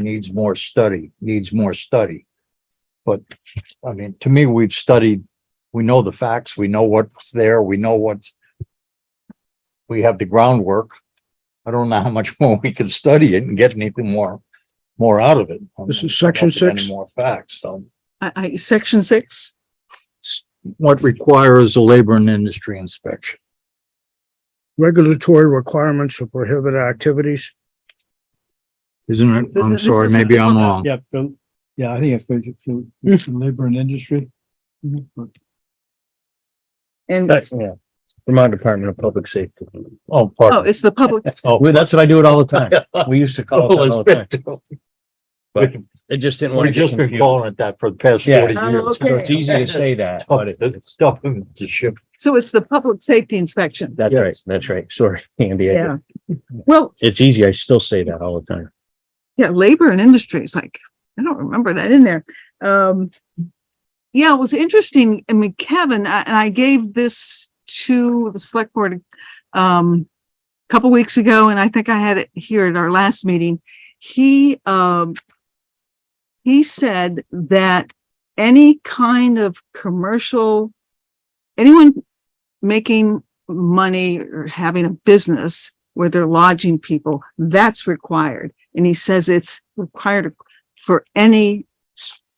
needs more study, needs more study. But, I mean, to me, we've studied, we know the facts, we know what's there, we know what's. We have the groundwork. I don't know how much more we can study it and get anything more, more out of it. This is section Any six? More facts, so. I, I, section six, What requires a labor and industry inspection? regulatory requirements to prohibit activities. Isn't it? I'm This sorry, is- maybe I'm wrong. Yeah, from, yeah, I think it's basic for for labor and industry. and, That's, yeah, Vermont Department of Public Safety. Oh, oh, pardon. it's the public, Oh, we- that's what I do it all the time. We used to call it Oh, that all the time. But It just didn't want We've to get just been confused. calling it that for the past Yeah. forty Oh, years. okay. It's easy to say that, but it- it's, Stop him to ship. so it's the public safety inspection. that's right, that's right. Sorry, Andy. I- Yeah. Well, It's easy. I still say that all the time. yeah, labor and industry is like, I don't remember that in there. Um, yeah, it was interesting. I mean, Kevin, I- and I gave this to the select board, um, a couple weeks ago, and I think I had it here at our last meeting. He, um, he said that any kind of commercial, anyone making money or having a business where they're lodging people, that's required. And he says it's required for any,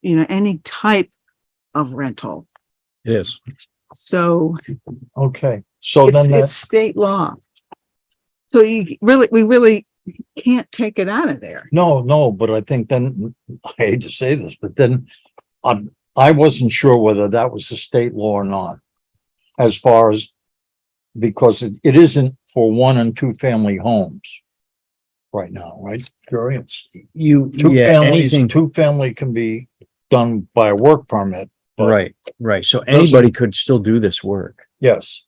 you know, any type of rental. It is. So Okay, so it's, then uh, it's that's, state law. So you really, we really can't take it out of there. no, no, but I think then, I hate to say this, but then I'm, I wasn't sure whether that was the state law or not. As far as, because it, it isn't for one and two family homes right now, right? Jerry, it's You, two yeah, families, anything, two family can be done by a work permit. but- right, right. So anybody could still do this work. Yes.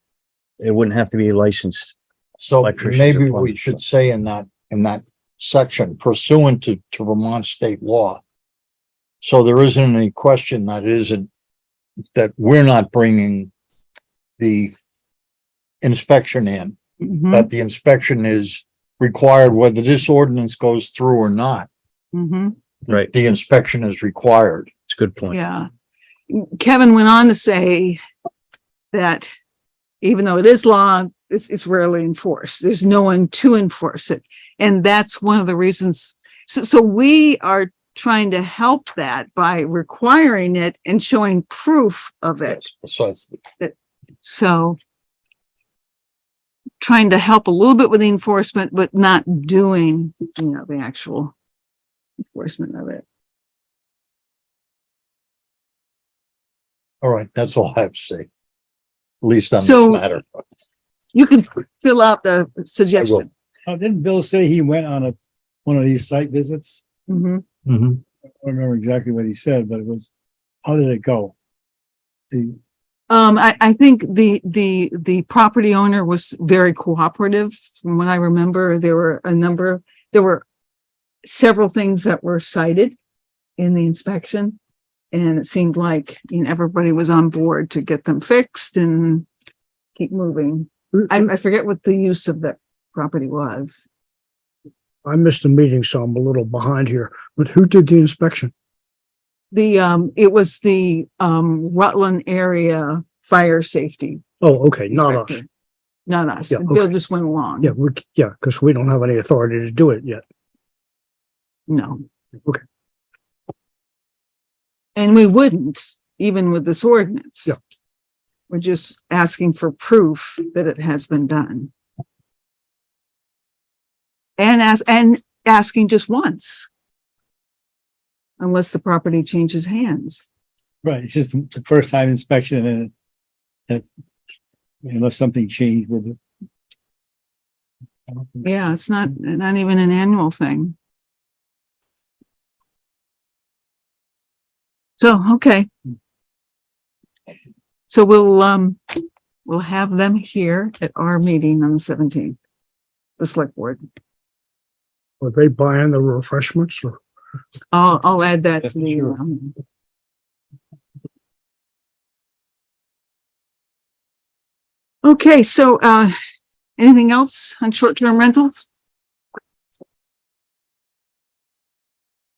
It wouldn't have to be licensed. So electricians or maybe we plumbers. should say in that, in that section pursuant to, to Vermont state law. So there isn't any question that it isn't, that we're not bringing the inspection in, Mhm, that the inspection is required whether this ordinance goes through or not. mhm, Right. The inspection is required. It's a good point. yeah. Kevin went on to say that even though it is law, it's, it's rarely enforced. There's no one to enforce it. And that's one of the reasons. So, so we are trying to help that by requiring it and showing proof of it. Precisely. So trying to help a little bit with the enforcement, but not doing, you know, the actual enforcement of it. All right, that's all I have to say. At least on So- this matter. You can fill out the suggestion. Oh, didn't Bill say he went on a, one of these site visits? Mhm. Mhm. I don't remember exactly what he said, but it was, how did it go? The, Um, I, I think the, the, the property owner was very cooperative. From what I remember, there were a number, there were several things that were cited in the inspection. And it seemed like, you know, everybody was on board to get them fixed and keep moving. I, I forget what the use of that property was. I missed the meeting, so I'm a little behind here, but who did the inspection? The, um, it was the, um, Rutland area fire safety. Oh, okay, not us. inspector. Not us. Yeah, Bill okay. just went along. Yeah, we, yeah, because we don't have any authority to do it yet. No. Okay. And we wouldn't, even with this ordinance. Yeah. We're just asking for proof that it has been done. And as, and asking just once. Unless the property changes hands. right, it's just the first time inspection and that, unless something changed with it. I don't think- Yeah, it's not, not even an annual thing. So, okay. So we'll, um, we'll have them here at our meeting on the seventeenth. The select board. Were they buying the refreshments or? I'll, I'll add that to the, Sure. um, Okay, so, uh, anything else on short-term rentals?